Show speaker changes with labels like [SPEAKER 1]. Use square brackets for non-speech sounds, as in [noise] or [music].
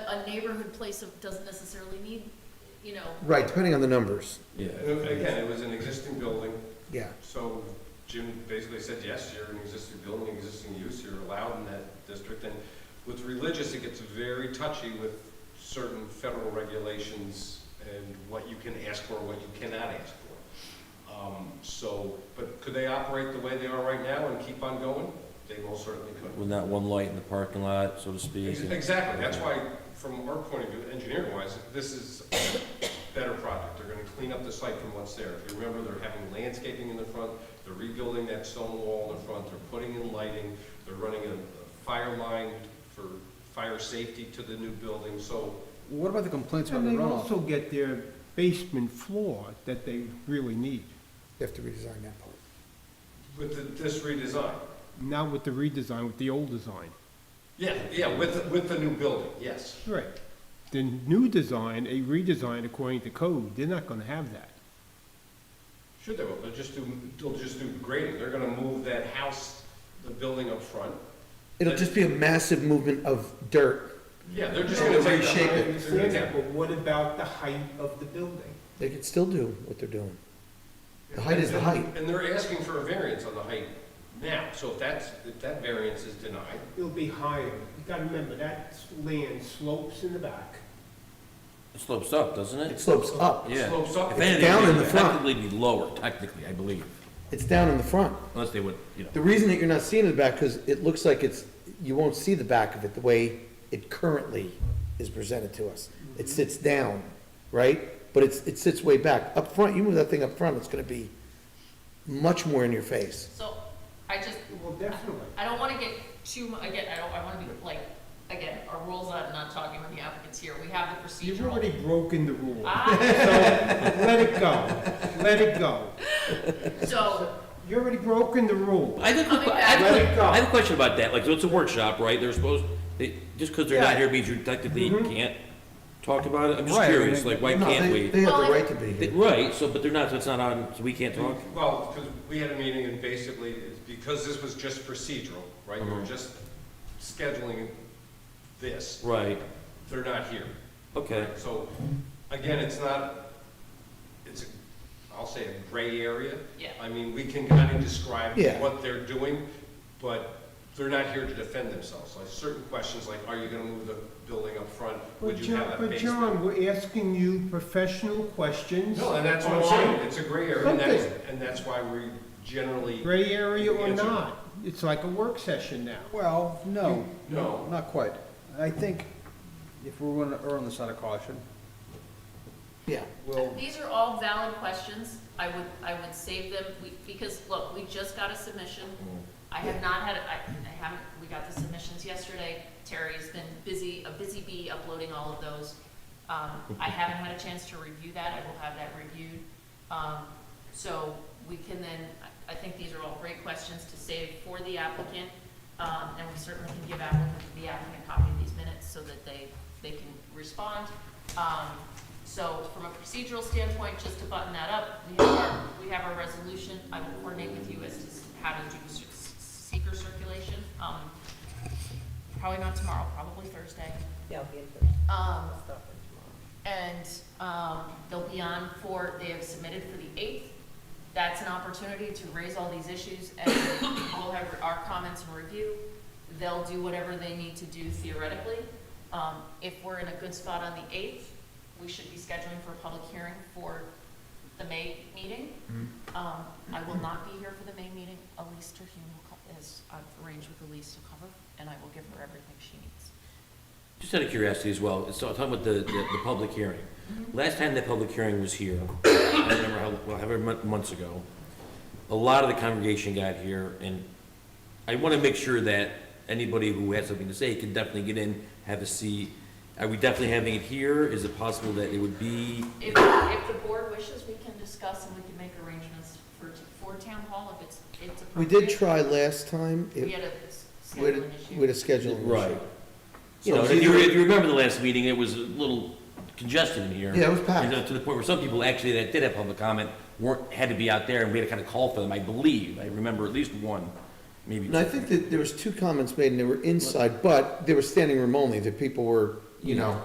[SPEAKER 1] a neighborhood place of, doesn't necessarily need, you know,
[SPEAKER 2] Right, depending on the numbers,
[SPEAKER 3] Yeah.
[SPEAKER 4] And Again, it was an existing building,
[SPEAKER 2] yeah.
[SPEAKER 4] so Jim basically said, yes, you're an existing building, existing use, you're allowed in that district. And with religious, it gets very touchy with certain federal regulations and what you can ask for, what you cannot ask for. Um, So, but could they operate the way they are right now and keep on going? They most certainly could.
[SPEAKER 3] With that one light in the parking lot, so to speak.
[SPEAKER 4] Ex- Exactly, that's why, from our point of view, engineering-wise, this is a better project. They're gonna clean up the site from what's there. If you remember, they're having landscaping in the front, they're rebuilding that stone wall in the front, they're putting in lighting, they're running a a fire line for fire safety to the new building, so
[SPEAKER 5] What about the complaints about
[SPEAKER 6] And
[SPEAKER 5] the
[SPEAKER 6] they
[SPEAKER 5] runoff?
[SPEAKER 6] also get their basement floor that they really need,
[SPEAKER 2] You have to redesign that part.
[SPEAKER 4] with the- this redesign.
[SPEAKER 6] not with the redesign, with the old design.
[SPEAKER 4] Yeah, yeah, with, with the new building, yes.
[SPEAKER 6] Right. The new design, a redesign according to code, they're not gonna have that.
[SPEAKER 4] Sure they will, they'll just do, they'll just do grading. They're gonna move that house, the building up front.
[SPEAKER 2] It'll just be a massive movement of dirt.
[SPEAKER 4] Yeah, they're just
[SPEAKER 2] They'll
[SPEAKER 4] gonna take the
[SPEAKER 2] reshape
[SPEAKER 4] high-
[SPEAKER 2] it.
[SPEAKER 4] they're gonna take-
[SPEAKER 6] what about the height of the building?
[SPEAKER 2] They could still do what they're doing. The height is the height.
[SPEAKER 4] And they're asking for a variance on the height now, so if that's, if that variance is denied,
[SPEAKER 6] It'll be higher. You gotta remember, that land slopes in the back.
[SPEAKER 3] It slopes up, doesn't
[SPEAKER 2] It
[SPEAKER 3] it?
[SPEAKER 2] slopes up.
[SPEAKER 3] Yeah.
[SPEAKER 4] slopes up.
[SPEAKER 3] If anything,
[SPEAKER 2] down
[SPEAKER 3] it
[SPEAKER 2] in
[SPEAKER 3] would
[SPEAKER 2] the front.
[SPEAKER 3] Technically be lower, technically, I believe,
[SPEAKER 2] It's down in the front.
[SPEAKER 3] unless they would, you know.
[SPEAKER 2] The reason that you're not seeing the back, because it looks like it's, you won't see the back of it the way it currently is presented to us. It sits down, right? But it's, it sits way back. Up front, you move that thing up front, it's gonna be much more in your face.
[SPEAKER 1] so I just,
[SPEAKER 6] Well, definitely.
[SPEAKER 1] I don't wanna get too, mu- again, I don't, I wanna be like, again, our rules, I'm not talking with the applicants here, we have the procedural.
[SPEAKER 6] You've already broken the rule.
[SPEAKER 1] Ah,
[SPEAKER 6] So, let it go. Let it go. [laughs]
[SPEAKER 1] so,
[SPEAKER 6] You already broken the rule.
[SPEAKER 3] I think,
[SPEAKER 1] Coming
[SPEAKER 3] I have,
[SPEAKER 6] back.
[SPEAKER 3] a
[SPEAKER 6] Let it
[SPEAKER 3] que-
[SPEAKER 6] go.
[SPEAKER 3] I have a question about that, like, so it's a workshop, right, they're supposed, they, just because they're not
[SPEAKER 6] Yeah.
[SPEAKER 3] here means you technically can't talk about it, I'm just
[SPEAKER 5] Right, I
[SPEAKER 3] curious,
[SPEAKER 5] mean,
[SPEAKER 3] like, why
[SPEAKER 2] No,
[SPEAKER 3] can't
[SPEAKER 2] they-
[SPEAKER 3] we?
[SPEAKER 2] They have
[SPEAKER 1] Well,
[SPEAKER 2] the
[SPEAKER 1] I-
[SPEAKER 2] right to be
[SPEAKER 3] They-
[SPEAKER 2] here.
[SPEAKER 3] Right, so, but they're not, so it's not on, so we can't talk?
[SPEAKER 4] Well, because we had a meeting and basically, it's because this was just procedural, right, we were
[SPEAKER 3] Mhm.
[SPEAKER 4] just scheduling this,
[SPEAKER 3] Right,
[SPEAKER 4] they're not here.
[SPEAKER 3] okay,
[SPEAKER 4] So, again, it's not, it's, a will say a gray area.
[SPEAKER 1] Yeah.
[SPEAKER 4] I mean, we can kind of describe
[SPEAKER 2] Yeah.
[SPEAKER 4] what they're doing, but they're not here to defend themselves. Like certain questions, like, are you gonna move the building up front?
[SPEAKER 6] But
[SPEAKER 4] Would you
[SPEAKER 6] John,
[SPEAKER 4] have a
[SPEAKER 6] but
[SPEAKER 4] basement?
[SPEAKER 6] John, we're asking you professional questions.
[SPEAKER 4] No, and that's what I'm
[SPEAKER 6] online.
[SPEAKER 4] saying, it's a gray area, and that's,
[SPEAKER 6] Something.
[SPEAKER 4] and that's why we generally,
[SPEAKER 6] Gray area or
[SPEAKER 4] Answer.
[SPEAKER 6] not, it's like a work session now.
[SPEAKER 5] Well, no,
[SPEAKER 4] no.
[SPEAKER 5] not quite. I think if we're gonna err on the side of caution,
[SPEAKER 2] Yeah.
[SPEAKER 5] we'll,
[SPEAKER 1] these are all valid questions, I would, I would save them, we, because, look, we just got a submission. I have not had, I, I haven't, we got the submissions yesterday, Terry's been busy, a busy bee uploading all of those. Um, I haven't had a chance to review that, I will have that reviewed. Um, so we can then, I I think these are all great questions to save for the applicant. Um, and we certainly can give applicant, the applicant a copy of these minutes so that they, they can respond. Um, so from a procedural standpoint, just to button that up, we have our, we have our resolution. I will coordinate with you as to how to do s- s- seeker circulation. Um, probably not tomorrow, probably Thursday.
[SPEAKER 7] Yeah, I'll be in Thursday.
[SPEAKER 1] Um,
[SPEAKER 7] I'll stop in tomorrow.
[SPEAKER 1] and um, they'll be on for, they have submitted for the 8th. That's an opportunity to raise all these issues, and we'll have our comments and review. They'll do whatever they need to do theoretically. Um, If we're in a good spot on the 8th, we should be scheduling for a public hearing for the May meeting.
[SPEAKER 2] Mm-hmm.
[SPEAKER 1] Um, I will not be here for the May meeting. Elise Terhune will co- is, I've arranged with Elise to cover, and I will give her everything she needs.
[SPEAKER 3] just out of curiosity as well, so I'm talking about the, the, the public hearing. Last time that public hearing was here, I don't remember how, well, however mon- months ago, a lot of the congregation got here, and I want to make sure that anybody who has something to say can definitely get in, have a seat. Are we definitely having it here? Is it possible that it would be?
[SPEAKER 1] If, if the board wishes, we can discuss and we can make arrangements for, for town hall if it's, it's
[SPEAKER 2] We
[SPEAKER 1] appropriate.
[SPEAKER 2] did try last time. It-
[SPEAKER 1] We had a
[SPEAKER 2] We had,
[SPEAKER 1] scheduling
[SPEAKER 2] a- we
[SPEAKER 1] issue.
[SPEAKER 2] had a scheduling issue.
[SPEAKER 3] You know,
[SPEAKER 2] So
[SPEAKER 3] if you,
[SPEAKER 2] either-
[SPEAKER 3] if you remember the last meeting, it was a little congested in here.
[SPEAKER 2] Yeah, it was packed.
[SPEAKER 3] And, uh, To the point where some people actually that did have public comment weren't, had to be out there, and we had to kind of call for them, I believe. I remember at least one, maybe
[SPEAKER 2] And I
[SPEAKER 3] two.
[SPEAKER 2] think that there was two comments made and they were inside, but they were standing room only, that people were, you know,